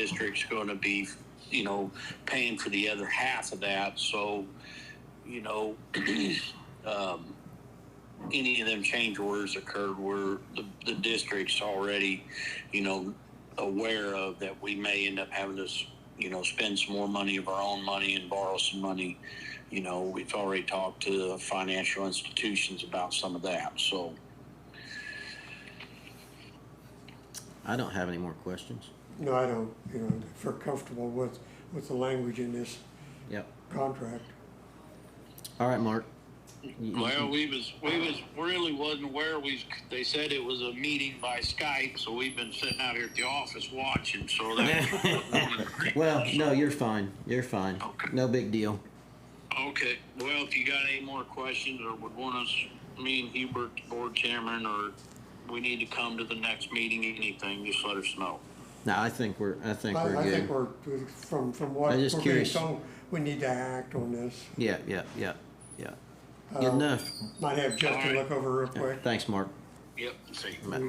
district's gonna be, you know, paying for the other half of that, so, you know, um, any of them change orders occurred where the, the district's already, you know, aware of that we may end up having to, s- you know, spend some more money of our own money and borrow some money. You know, we've already talked to financial institutions about some of that, so. I don't have any more questions. No, I don't, you know, if we're comfortable with, with the language in this Yep. contract. All right, Mark. You- you- Well, we was we was really wasn't aware. We they said it was a meeting by Skype, so we've been sitting out here at the office watching. So that Well, no, you're fine. You're fine. Okay. No big deal. okay. Well, if you got any more questions or would want us, me and Hubert, the board chairman, or we need to come to the next meeting, anything, just let us know. No, I think we're. I think I, we're I good. think we're, from, from what I'm we're just being curious. told, we need to act on this. yeah, yeah, yeah, yeah. Good Um, enough. Might have Justin Alright. look over real Yeah, quick. Thanks, Mark. Yep. See. We met,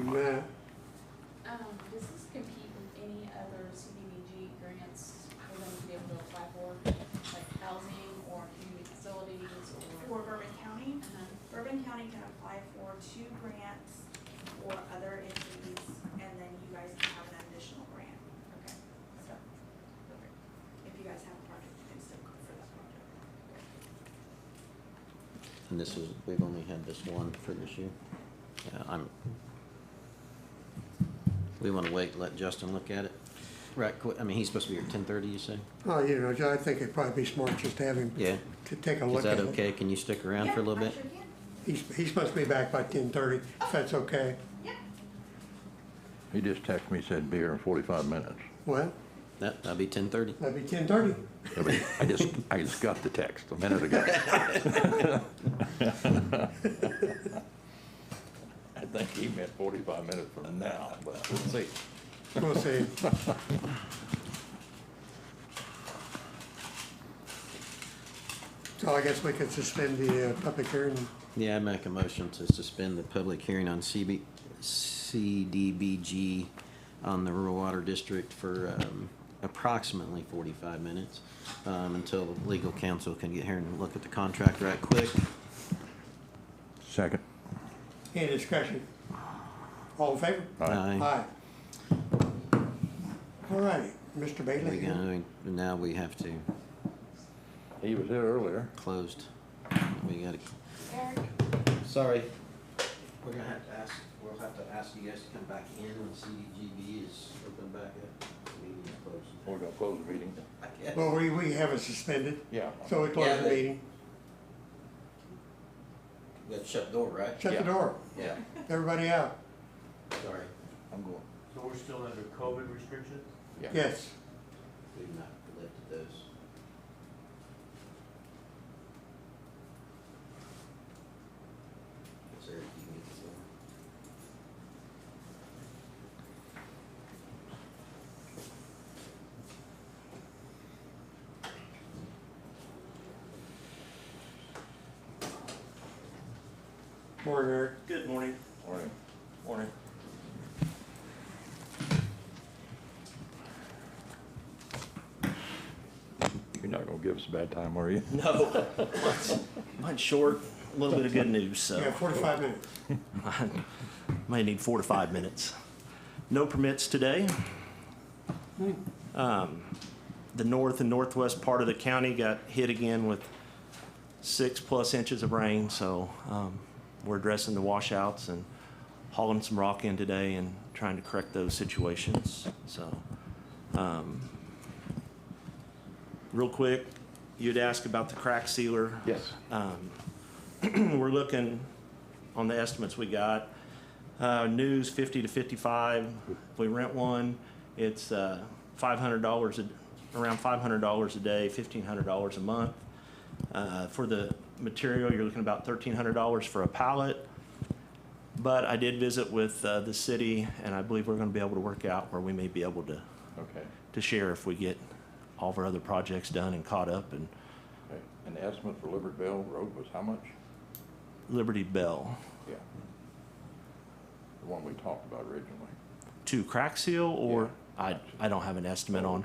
Um, does this compete with any other CDBG grants for them to be able to apply for, like housing or community facilities or? for Bourbon County. Uh-huh. Bourbon County can apply for two grants for other entities, and then you guys can have an additional grant. Okay, So, if you guys have a project, you can still go for that project. And this is we've only had this one for this year. Yeah, I'm. We want to wait. and Let Justin look at it. Right. Quick. I mean, he's supposed to be here at ten thirty. You say? oh, you know, I think it'd probably be smart just to have him Yeah. to take a Is look at that it. okay? Can you stick around for a little bit? Yeah, I sure can. He's, he's supposed to be back by ten thirty, if that's okay. Yeah. He just texted me, said be here in forty-five minutes. Well, That that'll be ten thirty. that'd be ten thirty. I mean, I just, I just got the text a minute ago. I think he meant forty-five minutes from now, but we'll see. We'll see. So I guess we could suspend the uh, public hearing. Yeah, I make a motion to suspend the public hearing on CB, CDBG on the rural water district for um, approximately forty-five minutes um, until legal counsel can get here and look at the contract right quick. Second. Any discussion? All in favor? Aye. All righty, Mr. We Bailey. gonna, now we have to He was here earlier. closed. We gotta, Eric, sorry. We're gonna have to ask, we'll have to ask you guys to come back in when CDBG is open back up. Meeting is closed. We're gonna close the meeting. I guess. Well, we, we have it suspended, Yeah. so we Yeah, close the but- meeting, We gotta shut the door, right? shut the Yeah. door, Yeah, everybody out, sorry. I'm going. So we're still under COVID restrictions? yes. We've not lifted those. Is there, you can get this over? Morning, Eric. Good morning. Morning. Morning. You're not gonna give us a bad time, are you? No. Mine's short, a little bit of good news, so. Yeah, forty-five minutes. May need four to five minutes. No permits today. Um, The north and northwest part of the county got hit again with six-plus inches of rain, so um, we're addressing the washouts and hauling some rock in today and trying to correct those situations, so. um, Real quick, you'd ask about the crack sealer. Yes. Um, We're looking, on the estimates we got, uh, news fifty to fifty-five. If we rent one, it's, uh, five hundred dollars, around five hundred dollars a day, fifteen hundred dollars a month. Uh, for the material, you're looking about thirteen hundred dollars for a pallet. But I did visit with, uh, the city, and I believe we're gonna be able to work out where we may be able to, Okay. to share if we get all of our other projects done and caught up. And Okay. And the estimate for Libertyville Road was how much? Liberty Bell Yeah. The one we talked about originally. to crack seal or? Yeah. I, I don't have an estimate on.